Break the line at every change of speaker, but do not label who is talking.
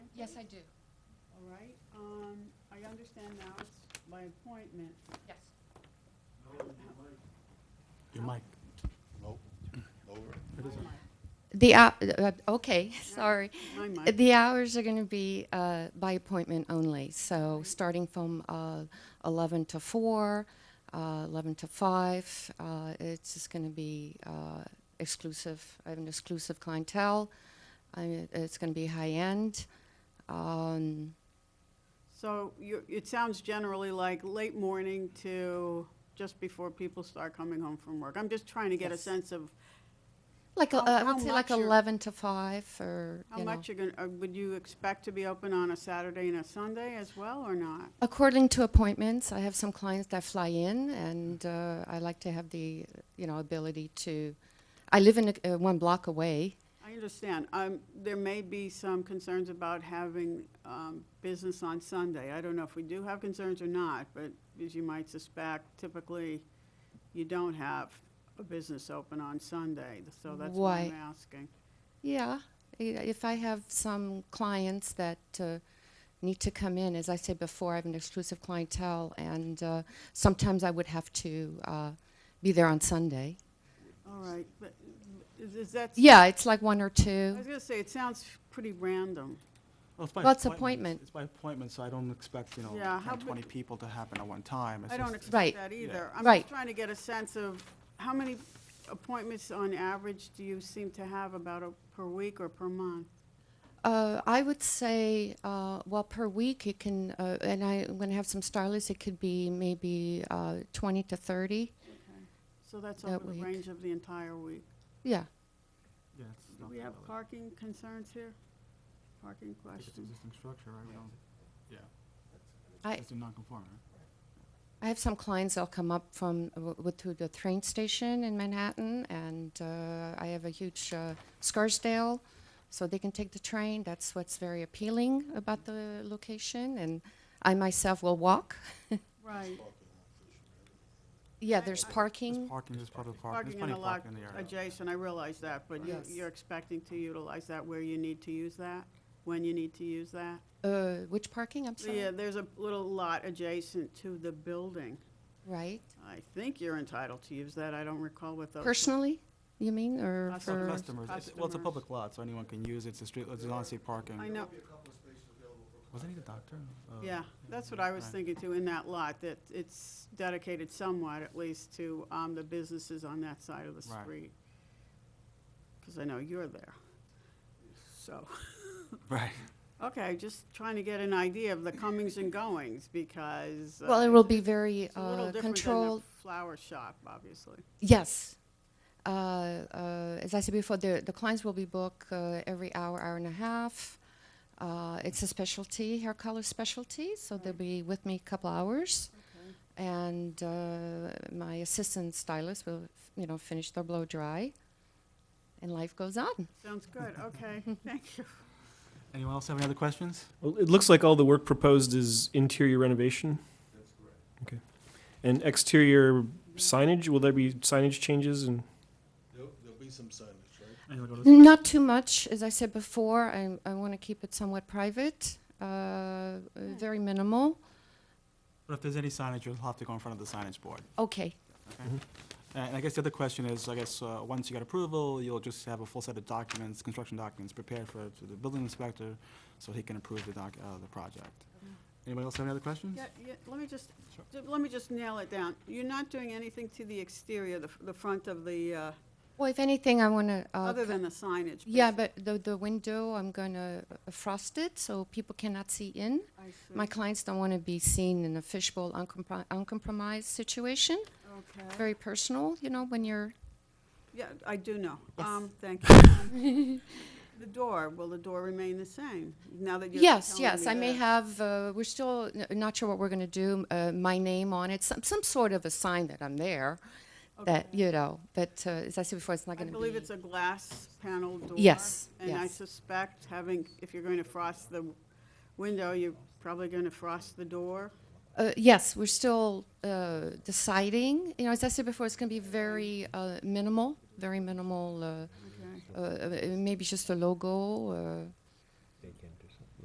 Yes, I do,
All right, um, I understand now it's by appointment.
yes.
Your mic.
Nope, over.
My
The, hou- uh, okay, sorry.
mic, my mic.
The hours are going to be uh, by appointment only, so starting from uh, 11 to 4, uh, 11 to 5, uh, it's just going to be uh, exclusive, I have an exclusive clientele, I- it's going to be high-end. Um,
So you, it sounds generally like late morning to just before people start coming home from work. I'm just trying to get a
Yes.
sense of
Like, a-
How-
I
how
would say like
much you're-
11 to 5, or,
how
you know.
much you're gonna, uh, would you expect to be open on a Saturday and a Sunday as well, or not?
According to appointments, I have some clients that fly in, and uh, I like to have the you know ability to. I live in a, uh, one block away.
I understand. Um, There may be some concerns about having um, business on Sunday. I don't know if we do have concerns or not, but as you might suspect, typically, you don't have a business open on Sunday, so that's what I'm
Why?
asking.
Yeah, i- if I have some clients that uh, need to come in, as I said before, I have an exclusive clientele, and uh, sometimes I would have to uh, be there on Sunday.
All right, but is is that?
Yeah, it's like one or
I
two.
was gonna say, it sounds pretty random.
Well, it's by
Well, it's appointment.
It's by appointment, so I don't expect, you know,
Yeah, how
10, 20
big-
people to happen at one time. It's
I don't
just-
expect
Right.
that
Yeah.
either. I'm
Right.
just trying to get a sense of how many appointments on average do you seem to have about a- per week or per month?
Uh, I would say, uh, well, per week it can, uh, and I, I'm going to have some stylists. It could be maybe uh, 20 to 30.
So that's
That
over the
week.
range of the entire week.
Yeah.
Yeah, it's
Do
not
we have
valid.
parking concerns here? Parking
If It's an
questions?
existing structure, right? We don't, yeah.
I-
It's a non-conforming, right?
I have some clients that'll come up from uh, w- w- to the train station in Manhattan, and uh, I have a huge uh, Scarsdale, so they can take the train. That's what's very appealing about the location, and I myself will walk.
Right.
Yeah,
I-
there's
I-
There's
parking.
parking, there's public parking,
Parking
there's
in
plenty
a
of
lot
parking in the area.
adjacent, I realize that, but you-
Yes.
you're expecting to utilize that where you need to use that? When you need to use that?
Uh, which parking? I'm sorry.
Yeah, there's a little lot adjacent to the building.
Right.
I think you're entitled to use that. I don't recall what those.
Personally, you mean, or
Us-
It's not
for?
Customers, It's- well, it's a
Customers.
public lot, so anyone can use it, it's a street, it's on-street parking.
I know,
Wasn't he the doctor? Uh,
yeah, that's what I was
Right.
thinking too, in that lot, that it's dedicated somewhat, at least, to um, the businesses on that side of the
Right.
street. Because I know you're there. So,
Right.
okay, just trying to get an idea of the comings and goings, because. uh,
Well, it will be very
It's a little
uh,
different than the
controlled.
flower shop, obviously.
Yes. Uh, uh, as I said before, the, the clients will be booked uh, every hour, hour and a half. Uh, it's a specialty, hair color specialty, so they'll be with me a couple hours. And uh, my assistant stylist will, you know, finish their blow dry, and life goes on.
Sounds good, okay, thank you.
Anyone else have any other questions?
Well, It looks like all the work proposed is interior renovation. That's correct. Okay. And exterior signage, will there be signage changes and?
There'll, there'll be some signage, right?
Anyone go to-
Not too much, as I said before. I, I want to keep it somewhat private, uh, uh, very minimal.
But if there's any signage, you'll have to go in front of the signage board.
Okay.
And I guess the other question is, I guess, uh, once you get approval, you'll just have a full set of documents, construction documents prepared for, to the building inspector, so he can approve the doc, uh, the project. Anybody else have any other questions?
Yeah, yeah, let me just,
Sure.
ju- let me just nail it down. You're not doing anything to the exterior, the, f- the front of the, uh,
Well, if anything, I want to uh,
other than the signage.
Yeah, but the, the window, I'm gonna uh, frost it so people cannot see in.
I see.
My clients don't wanna be seen in a fishbowl uncompri- uncompromised situation.
Okay.
Very personal, you know, when you're,
Yeah, I do know.
Yes.
Um, thank you. Um, The door, will the door remain the same now that you're
yes,
telling
yes,
me
I may
that?
have, uh, we're still n- not sure what we're gonna do, uh, my name on it, some, some sort of a sign that I'm there. That,
Okay.
you know, but, uh, as I said before, it's not
I
gonna be.
believe it's a glass panel door.
Yes,
And I
yes.
suspect having, if you're going to frost the window, you're probably going to frost the door.
Uh, yes, we're still, uh, deciding, you know, as I said before, it's gonna be very, uh, minimal, very minimal, uh,
Okay.
uh, uh, maybe just a logo, uh,